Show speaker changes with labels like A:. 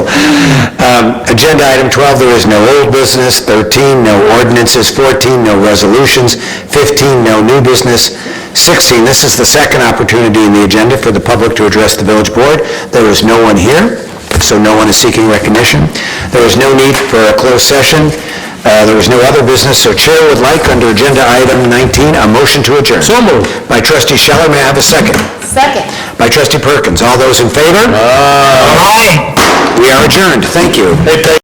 A: Um, Agenda item 12, there is no old business. 13, no ordinances. 14, no resolutions. 15, no new business. 16, this is the second opportunity in the agenda for the public to address the village board. There is no one here, so no one is seeking recognition. There is no need for a closed session. Uh, There is no other business, so Chair would like, under agenda item 19, a motion to adjourn. So moved. By trustee Scheller, may I have a second?
B: Second.
A: By trustee Perkins. All those in favor? Aye. We are adjourned. Thank you.